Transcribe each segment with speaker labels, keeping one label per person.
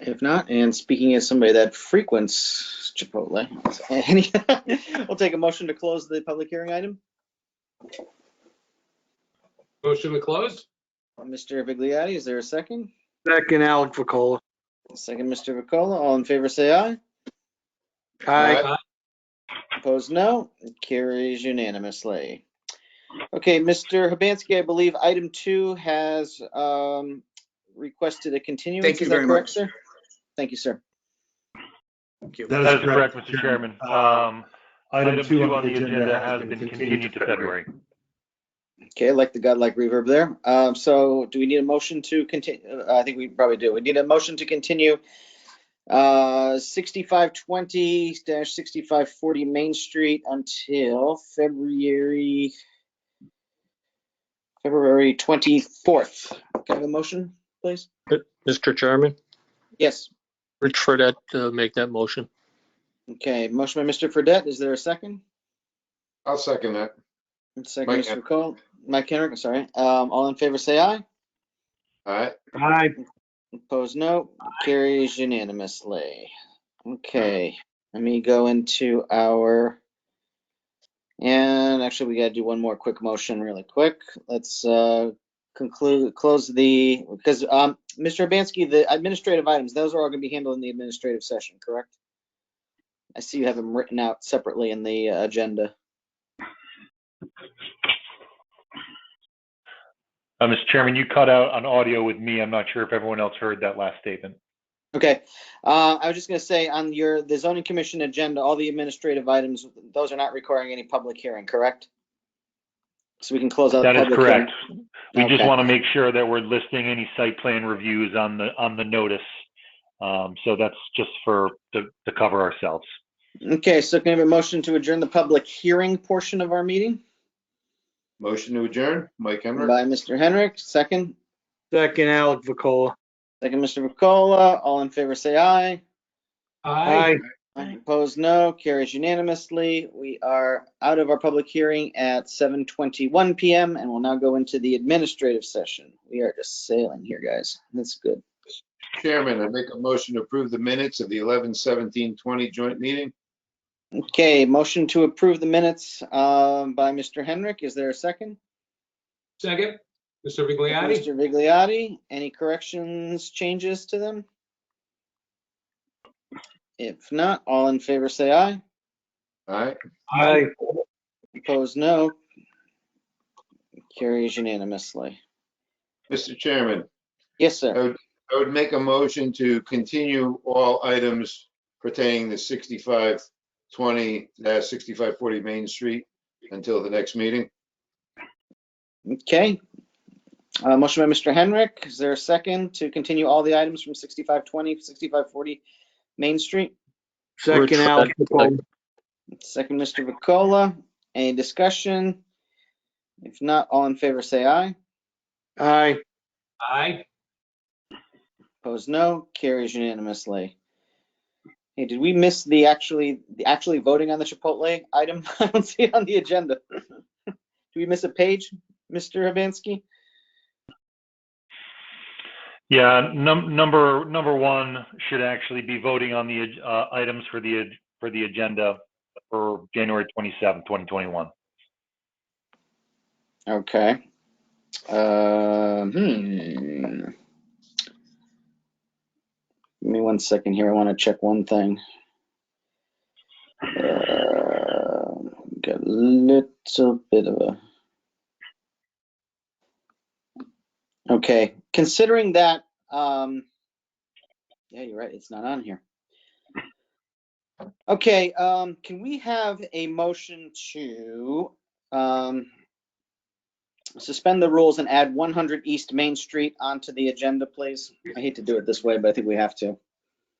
Speaker 1: If not, and speaking as somebody that frequents Chipotle, any, we'll take a motion to close the public hearing item.
Speaker 2: Motion to close?
Speaker 1: Mr. Vigliotti, is there a second?
Speaker 3: Second, Alec Vacola.
Speaker 1: Second, Mr. Vicola, all in favor, say aye.
Speaker 3: Aye.
Speaker 1: Opposed, no. It Carries unanimously. Okay, Mr. Hibansky, I believe item two has um, requested a continuance.
Speaker 4: Thank you
Speaker 1: Is that
Speaker 4: very
Speaker 1: correct,
Speaker 4: much.
Speaker 1: sir? Thank you, sir.
Speaker 5: That
Speaker 6: That is correct, Mr. Chairman. Um, Item two on the agenda has been continued to February.
Speaker 1: Okay, I like the godlike reverb there. Um, So do we need a motion to continue? I think we probably do. We need a motion to continue uh, 6520-6540 Main Street until February, February 24th. Can I have a motion, please?
Speaker 7: Mr. Chairman,
Speaker 1: Yes.
Speaker 7: Rich Fredette, uh, make that motion.
Speaker 1: Okay, motion by Mr. Fredette, is there a second?
Speaker 2: I'll second that.
Speaker 1: Second,
Speaker 2: Mike
Speaker 1: Mr. Cole, Mike Henrik, sorry. Um, all in favor, say aye.
Speaker 2: All right.
Speaker 3: Aye.
Speaker 1: Opposed, no. Carries unanimously. Okay, let me go into our, and actually, we gotta do one more quick motion really quick. Let's, uh, conclude, close the, because, um, Mr. Urbanski, the administrative items, those are all gonna be handled in the administrative session, correct? I see you have them written out separately in the uh, agenda.
Speaker 6: Uh, Mr. Chairman, you cut out on audio with me. I'm not sure if everyone else heard that last statement.
Speaker 1: Okay, uh, I was just gonna say, on your, the zoning commission agenda, all the administrative items, those are not requiring any public hearing, correct? So we can close out. the
Speaker 6: That is
Speaker 1: Uh, public hearing.
Speaker 6: correct. We just
Speaker 1: Okay.
Speaker 6: want to make sure that we're listing any site plan reviews on the, on the notice. Um, So that's just for, to to cover ourselves.
Speaker 1: Okay, so can I have a motion to adjourn the public hearing portion of our meeting
Speaker 2: Motion to adjourn, Mike Emmerich.
Speaker 1: by Mr. Henrik, second,
Speaker 3: Second, Alec Vacola.
Speaker 1: second, Mr. Vakola, all in favor, say aye.
Speaker 3: Aye.
Speaker 1: Aye. Opposed, no, carries unanimously. We are out of our public hearing at seven twenty-one PM and we'll now go into the administrative session. We are just sailing here, guys. That's good.
Speaker 2: Chairman, I make a motion to approve the minutes of the 11-17-20 joint meeting.
Speaker 1: Okay, motion to approve the minutes um, by Mr. Henrik. Is there a second?
Speaker 4: Second,
Speaker 2: Mr.
Speaker 1: Mr. Vigliotti, any corrections, changes to them? If not, all in favor say aye.
Speaker 2: All right.
Speaker 3: Aye.
Speaker 1: Opposed, no. Carries unanimously.
Speaker 2: Mr. Chairman,
Speaker 1: Yes, sir.
Speaker 2: I would make a motion to continue all items pertaining to sixty-five twenty, uh, sixty-five forty Main Street until the next meeting.
Speaker 1: Okay. Uh, Motion by Mr. Henrik. Is there a second to continue all the items from 6520, 6540 Main Street?
Speaker 7: Rich
Speaker 3: Second, Alec
Speaker 7: Fredette,
Speaker 3: Vacola.
Speaker 1: Second, Mr. Vakola. Any discussion? If not, all in favor, say aye.
Speaker 3: Aye.
Speaker 4: aye.
Speaker 1: Opposed, no. Carries unanimously. Hey, did we miss the actually, the actually voting on the Chipotle item? I don't see it on the agenda. Do we miss a page, Mr. Hibansky?
Speaker 6: Yeah, num- number, number one should actually be voting on the ag- uh, items for the, ag- for the agenda for January 27, 2021.
Speaker 1: Okay. Um, hmm. Give me one second here. I want to check one thing. Uh, got a little bit of a. Okay, considering that, um, yeah, you're right. It's not on here. Okay, um, can we have a motion to, um, suspend the rules and add 100 East Main Street onto the agenda, please? I hate to do it this way, but I think we have to.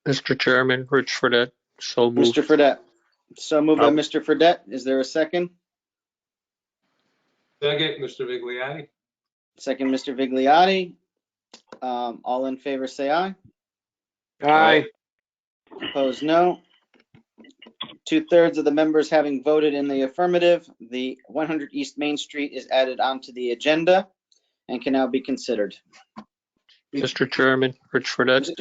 Speaker 7: Mr. Chairman, Rich Fredette, so moved.
Speaker 1: Mr. Fredette, so moved by
Speaker 6: Um,
Speaker 1: Mr. Fredette. Is there a second?
Speaker 4: Second, Mr. Vigliotti.
Speaker 1: Second, Mr. Vigliotti. Um, all in favor, say aye.
Speaker 3: Aye.
Speaker 1: Opposed, no. Two-thirds of the members having voted in the affirmative, the 100 East Main Street is added onto the agenda and can now be considered.
Speaker 7: Mr. Chairman, Rich Fredette.